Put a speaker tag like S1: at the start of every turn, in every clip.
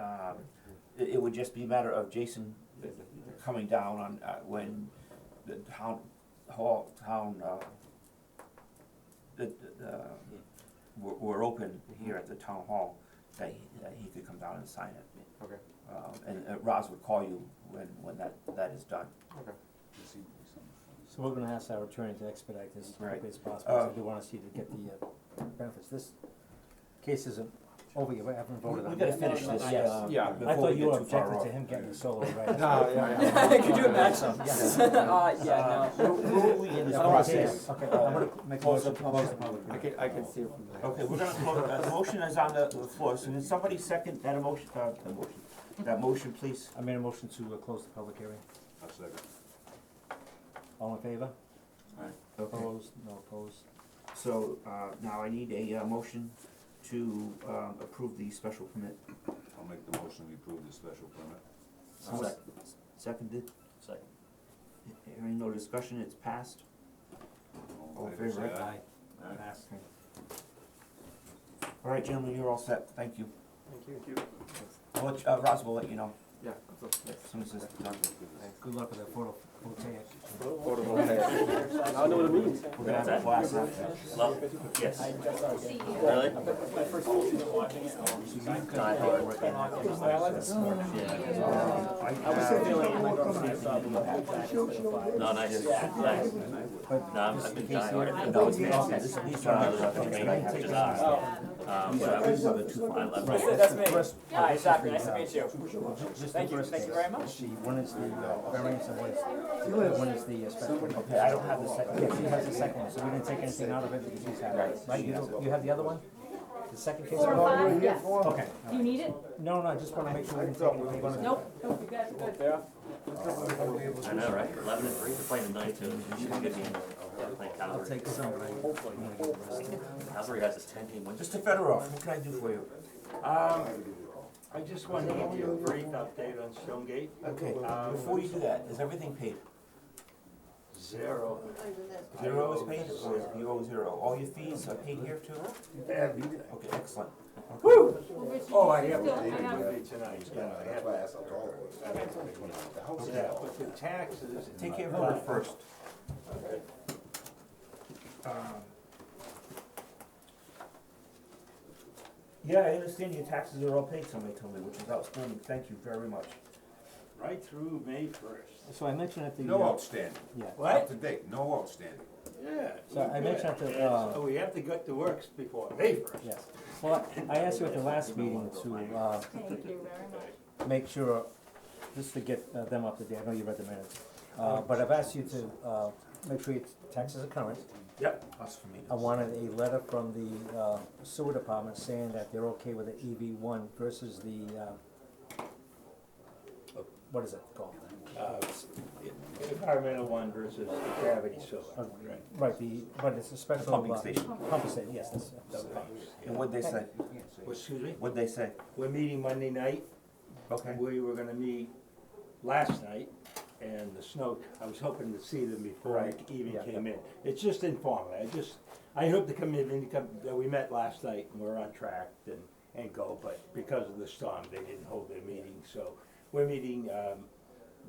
S1: um, it, it would just be a matter of Jason coming down on, uh, when the town hall, town, uh, the, the, uh, were, were open here at the town hall, that, he- that he could come down and sign it.
S2: Okay,
S1: Um, and, uh Roz would call you when, when that, that is done.
S2: okay.
S3: So we're gonna ask our attorney to expedite this as
S1: Right.
S3: quickly as possible, so
S1: Uh,
S3: we do wanna see to get the uh, benefits. This case isn't over yet, we haven't voted on
S1: We
S3: it.
S1: gotta finish this,
S3: I-
S1: uh,
S2: Yeah.
S3: I
S1: before
S3: thought
S1: we
S3: you
S1: get
S3: were
S1: too far
S3: objecting
S1: off.
S3: to him getting solo, right?
S2: No, yeah, yeah.
S4: Could you imagine? Uh, yeah, no.
S1: Where are we in this
S3: I don't wanna see
S1: process?
S3: this. Okay, I'm gonna make a
S1: Close
S3: motion.
S1: the- close the public
S2: I could, I could see it from there.
S1: Okay, we're gonna close, uh, the motion is on the the floor, so can somebody second that emotion, uh, the motion, that motion, please?
S3: I made a motion to uh, close the public hearing. All in favor?
S1: Okay.
S3: Opposed? No opposed?
S1: So, uh, now I need a, uh, motion to, um, approve the special permit.
S5: I'll make the motion to approve the special permit.
S1: Second. Seconded,
S4: Second.
S1: hearing no discussion, it's passed. All in favor,
S5: say aye.
S3: Passed.
S1: All right, gentlemen, you're all set, thank you.
S2: Thank you.
S1: I'll let, you- uh, Ross will let you know
S2: Yeah, that's all.
S1: as soon as this is done.
S3: Good luck with that photo, photo.
S2: I know what it means.
S1: We're gonna have a class after.
S4: Love it.
S1: Yes.
S4: Really? No, nice, nice. No, I'm- I've been dying, I've been dying.
S1: This these are not the things that I have to do.
S4: Um, but I was, I left.
S6: That's me. Hi, Zachary, nice to meet you.
S3: Thank
S6: you, thank you very much.
S3: The one is the uh, variance and one is, the one is the uh, special.
S1: Okay, I don't have the second.
S3: Yeah, she has the second one, so we didn't take anything out of it because she's had it, right? You, don't- you have the other one? The second case?
S7: Four,
S3: file?
S7: five, yes.
S3: Okay.
S7: Do you need it?
S3: No, no, I just wanna make sure we didn't take anything out of it.
S7: Nope, nope, you guys are good.
S4: I know, right? Eleven and three, they're playing tonight too. She's gonna get me, yeah, playing
S3: I'll
S4: Calvary.
S3: take some, but I- I'm gonna get the rest.
S4: Calvary has this ten team win.
S1: Mr. Federoff, what can I do for you?
S8: Um, I just wanted to give you a brief update on Stonegate.
S1: Okay, uh,
S8: Um,
S1: before you do that, is everything paid?
S8: Zero.
S1: Zero is paid, or is you owe zero? All your fees are paid here too? Okay, excellent.
S7: Well, Richard,
S8: Oh, I
S7: you
S8: have
S7: still-
S8: it
S7: have-
S8: with me tonight, yeah, I have it. Yeah, but the taxes.
S1: Take care of her first. Um, Yeah, I understand your taxes are all paid, somebody told me, which is outstanding, thank you very much.
S8: Right through May first.
S3: So I mentioned at the,
S5: No
S3: uh,
S5: outstanding,
S3: yeah,
S5: up to date, no outstanding.
S8: Yeah.
S3: So I mentioned that, uh,
S8: So we have to get to works before May first.
S3: yes. Well, I asked you at the last meeting to, uh,
S7: Thank you very much.
S3: make sure, just to get uh, them up to date, I know you read the minutes.
S8: Oh.
S3: Uh, but I've asked you to, uh, make sure your taxes are current.
S8: Yep.
S1: Us for me.
S3: I wanted a letter from the uh, sewer department saying that they're okay with the EV one versus the, uh, what is it called?
S8: Uh, Environmental one versus gravity solar. Right.
S3: Uh, Right, the, but it's a special.
S1: pumping
S3: uh,
S1: station.
S3: Pumping station, yes, that's,
S8: The
S3: that's-
S8: pumps, yeah.
S1: And what'd they say?
S8: Well, Excuse me?
S1: What'd they say?
S8: We're meeting Monday night.
S1: Okay.
S8: We were gonna meet last night, and the snow, I was hoping to see them before I even
S3: Yeah.
S8: came in. It's just informal, I just, I hope to come in, and come, that we met last night, and we're on track and, and go, but because of the storm, they didn't hold their meeting, so we're meeting, um,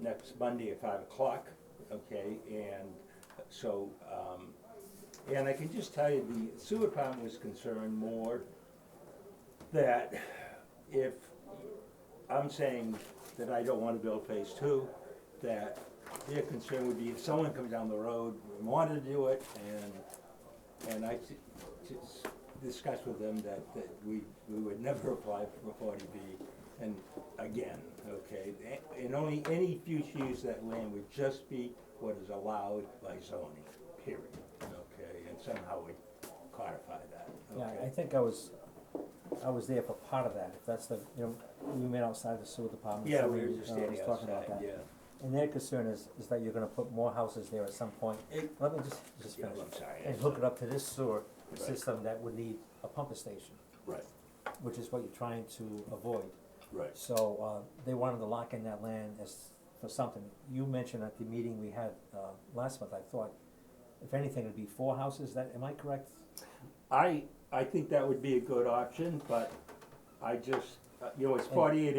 S8: next Monday at five o'clock, okay, and so, um, and I can just tell you, the sewer department was concerned more that if I'm saying that I don't wanna build phase two, that their concern would be if someone comes down the road, and wanted to do it, and, and I t- t- s- discussed with them that, that we, we would never apply for forty B, and again, okay? a- And only any future use of that land would just be what is allowed by zoning, period, okay? And somehow we codify that,
S3: yeah, I
S8: okay?
S3: think I was, I was there for part of that, if that's the, you know, we met outside the sewer department.
S8: Yeah,
S3: so
S8: we were just
S3: uh,
S8: standing
S3: was talking about
S8: outside,
S3: that.
S8: yeah.
S3: And their concern is, is that you're gonna put more houses there at some point.
S8: It-
S3: Let me just, just
S8: Yeah,
S3: finish.
S8: I'm sorry.
S3: And hook it up to this sewer
S8: Right.
S3: system that would need a pumper station,
S8: Right,
S3: which is what you're trying to avoid.
S8: right.
S3: So, uh, they wanted to lock in that land as, for something. You mentioned at the meeting we had, uh, last month, I thought, if anything, it'd be four houses, that, am I correct? uh,
S8: I, I think that would be a good option, but I just, you know, it's forty-eight